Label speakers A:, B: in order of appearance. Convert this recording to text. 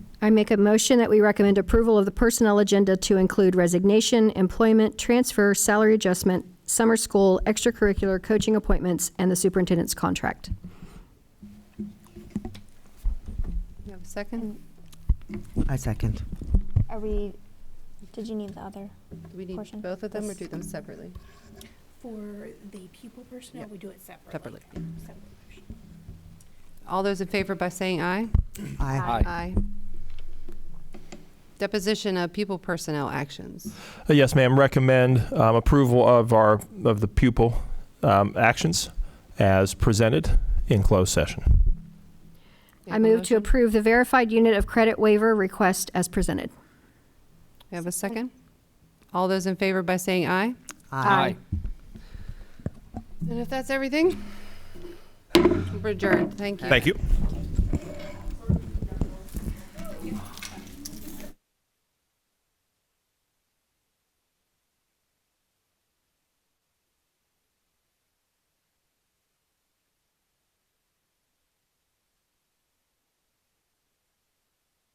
A: I make a motion that we recommend approval of the personnel agenda to include resignation, employment, transfer, salary adjustment, summer school, extracurricular, coaching appointments, and the superintendent's contract.
B: You have a second?
C: I second.
D: Are we, did you need the other?
B: Do we need
D: Portion.
B: both of them or do
D: Yes.
B: them separately?
E: For the pupil personnel,
B: Yep.
E: we do it separately.
B: Separately.
E: Separate motion.
B: All those in favor by saying aye?
C: Aye.
D: Aye.
B: Deposition of pupil personnel actions.
F: Uh, Yes, ma'am. Recommend um, approval of our, of the pupil um, actions as presented in closed session.
B: You
A: I
B: have a
A: move to
B: motion?
A: approve the verified unit of credit waiver request as presented.
B: You have a second? All those in favor by saying aye?
C: Aye.
B: And if that's everything, we're adjourned. Thank you.
F: Thank you.
D: Okay.